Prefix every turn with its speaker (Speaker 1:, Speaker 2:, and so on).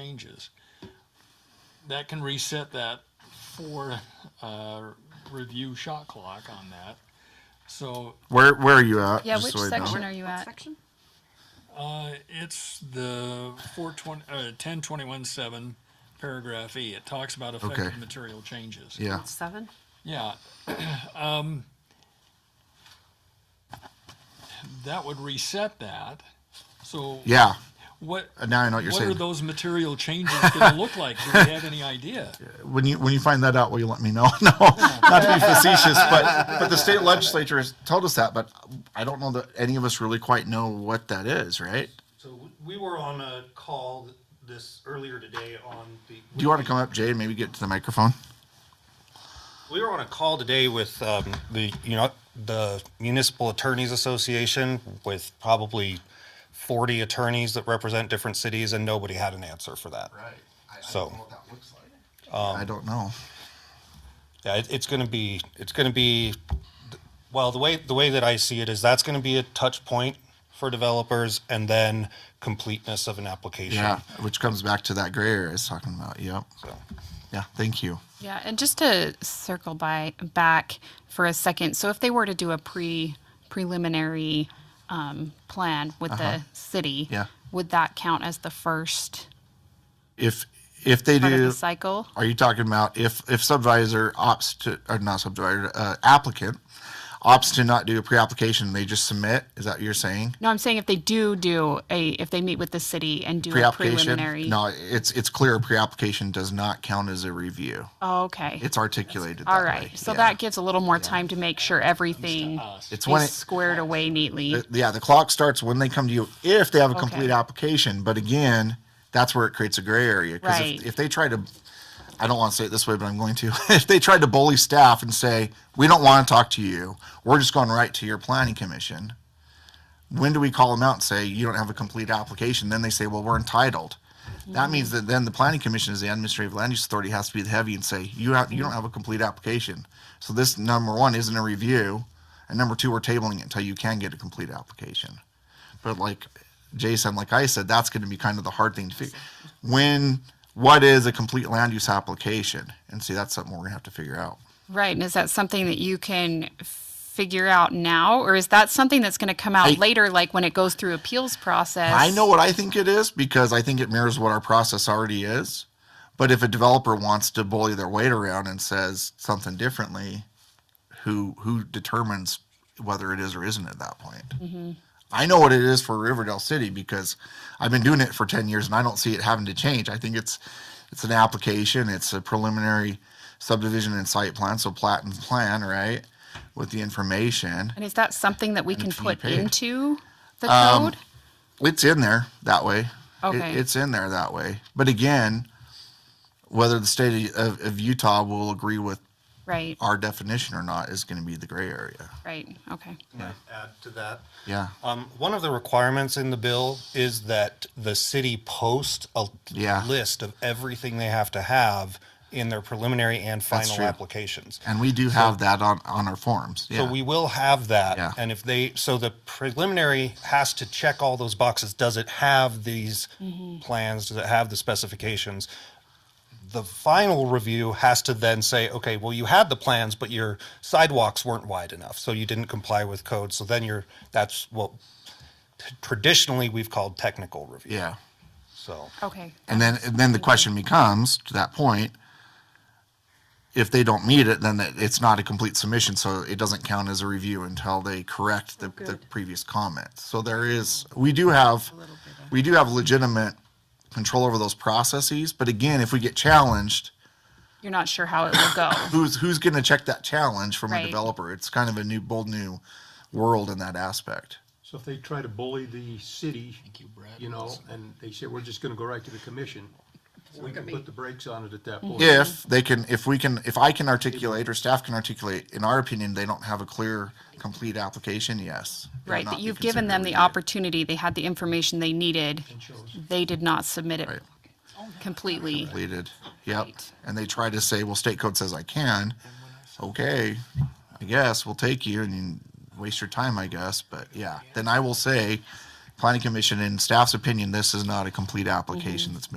Speaker 1: changes. That can reset that four, uh, review shot clock on that. So,
Speaker 2: Where where are you at?
Speaker 3: Yeah,
Speaker 2: Just
Speaker 3: which
Speaker 2: so I know.
Speaker 3: section are you
Speaker 4: What
Speaker 3: at?
Speaker 4: section?
Speaker 1: uh, it's the four twenty, uh, ten twenty-one seven, paragraph E. It talks about
Speaker 2: Okay.
Speaker 1: affected material changes.
Speaker 2: Yeah.
Speaker 4: That's seven.
Speaker 1: Yeah. Um, that would reset that. So
Speaker 2: Yeah.
Speaker 1: what,
Speaker 2: Uh, Now I know what you're
Speaker 1: what are
Speaker 2: saying.
Speaker 1: those material changes gonna look like? Do we have any idea?
Speaker 2: when you when you find that out, will you let me know? no, not to be facetious, but but the state legislature has told us that, but I don't know that any of us really quite know what that is, right?
Speaker 5: So w- we were on a call this earlier today on the.
Speaker 2: Do you want to come up, Jay, and maybe get to the microphone?
Speaker 5: We were on a call today with um, the, you know, the Municipal Attorneys Association with probably forty attorneys that represent different cities, and nobody had an answer for that.
Speaker 2: I,
Speaker 5: So- don't know what
Speaker 2: that looks like. I don't know.
Speaker 5: Yeah, it, it's going to be, it's going to be, well, the way the way that I see it is that's going to be a touch point for developers, and then completeness of an application.
Speaker 2: Yeah, which comes back to that gray area I was talking about. Yep.
Speaker 5: So.
Speaker 2: Yeah. Thank you.
Speaker 3: Yeah, and just to circle by back for a second. So if they were to do a pre preliminary um, plan with the city,
Speaker 2: Uh-huh. Yeah.
Speaker 3: would that count as the first
Speaker 2: If if they
Speaker 3: part of
Speaker 2: do,
Speaker 3: the cycle?
Speaker 2: Are you talking about if if subvisor opts to or not subvisor uh, applicant opts to not do a pre-application, they just submit? Is that what you're saying?
Speaker 3: No, I'm saying if they do do a if they meet with the city and do a
Speaker 2: Pre-application?
Speaker 3: preliminary.
Speaker 2: No, it's it's clear. Pre-application does not count as a review.
Speaker 3: Oh, okay.
Speaker 2: It's articulated.
Speaker 3: All
Speaker 2: that
Speaker 3: right.
Speaker 2: way.
Speaker 3: So
Speaker 2: Yeah.
Speaker 3: that gives a little more time to make sure everything
Speaker 2: it's when
Speaker 3: is
Speaker 2: it,
Speaker 3: squared away neatly.
Speaker 2: yeah the clock starts when they come to you if they have a
Speaker 3: Okay.
Speaker 2: complete application. But again, that's where it creates a gray area because
Speaker 3: Right.
Speaker 2: if, if they try to. I don't want to say it this way, but I'm going to. If they tried to bully staff and say, we don't want to talk to you, we're just going right to your planning commission, when do we call them out and say, you don't have a complete application? Then they say, well, we're entitled. That means that then the planning commission is the administrative land use authority has to be the heavy and say, you have, you don't have a complete application. So this number one isn't a review. And number two, we're tabling it until you can get a complete application. But like Jason, like I said, that's going to be kind of the hard thing to figure. When, what is a complete land use application? And see, that's something we're going to have to figure out.
Speaker 3: Right, and is that something that you can figure out now, or is that something that's going to come out
Speaker 2: I-
Speaker 3: later, like when it goes through appeals process?
Speaker 2: I know what I think it is because I think it mirrors what our process already is. But if a developer wants to bully their weight around and says something differently, who who determines whether it is or isn't at that point? I know what it is for Riverdale City because I've been doing it for ten years and I don't see it having to change. I think it's it's an application, it's a preliminary subdivision and site plan, so plat and plan, right? With the information.
Speaker 3: And is that something that we can
Speaker 2: to be
Speaker 3: put
Speaker 2: paid.
Speaker 3: into the
Speaker 2: Um,
Speaker 3: code?
Speaker 2: it's in there that way. It-
Speaker 3: Okay.
Speaker 2: it's in there that way. But again, whether the state of, of Utah will agree with
Speaker 3: Right,
Speaker 2: our definition or not is going to be the gray area.
Speaker 3: right, okay.
Speaker 5: Add to that.
Speaker 2: Yeah.
Speaker 5: Um, one of the requirements in the bill is that the city post a
Speaker 2: Yeah.
Speaker 5: list of everything they have to have in their preliminary and final
Speaker 2: true.
Speaker 5: applications.
Speaker 2: And we do have that on, on our forms. Yeah.
Speaker 5: So we will have that.
Speaker 2: Yeah.
Speaker 5: And if they, so the preliminary has to check all those boxes. Does it have these plans? Does it have the specifications? The final review has to then say, okay, well, you had the plans, but your sidewalks weren't wide enough. So you didn't comply with code. So then you're, that's what traditionally we've called technical review.
Speaker 2: yeah.
Speaker 5: So.
Speaker 3: Okay.
Speaker 2: And then, and then the question becomes to that point, if they don't meet it, then it- it's not a complete submission. So it doesn't count as a review until they correct the, the previous comments. So there is, we do have, we do have legitimate control over those processes. But again, if we get challenged,
Speaker 3: You're not sure how it will go.
Speaker 2: who's, who's going to check that challenge from a
Speaker 3: Right.
Speaker 2: developer? It's kind of a new, bold new world in that aspect.
Speaker 6: So if they try to bully the city,
Speaker 1: you, Brad.
Speaker 6: you know, and they say, we're just gonna go right to the commission, we can put the brakes on it at that point.
Speaker 2: if they can if we can if i can articulate or staff can articulate in our opinion they don't have a clear complete application yes it would
Speaker 3: Right,
Speaker 2: not
Speaker 3: but
Speaker 2: be
Speaker 3: you've given
Speaker 2: considered
Speaker 3: them the
Speaker 2: review.
Speaker 3: opportunity, they had the information they needed. They did not submit it completely.
Speaker 2: completed yep
Speaker 3: Right.
Speaker 2: and they try to say well state code says i can okay i guess we'll take you and you waste your time i guess but
Speaker 3: Mm-hmm.
Speaker 2: yeah then i will say planning commission in staff's opinion this is not a complete application that's been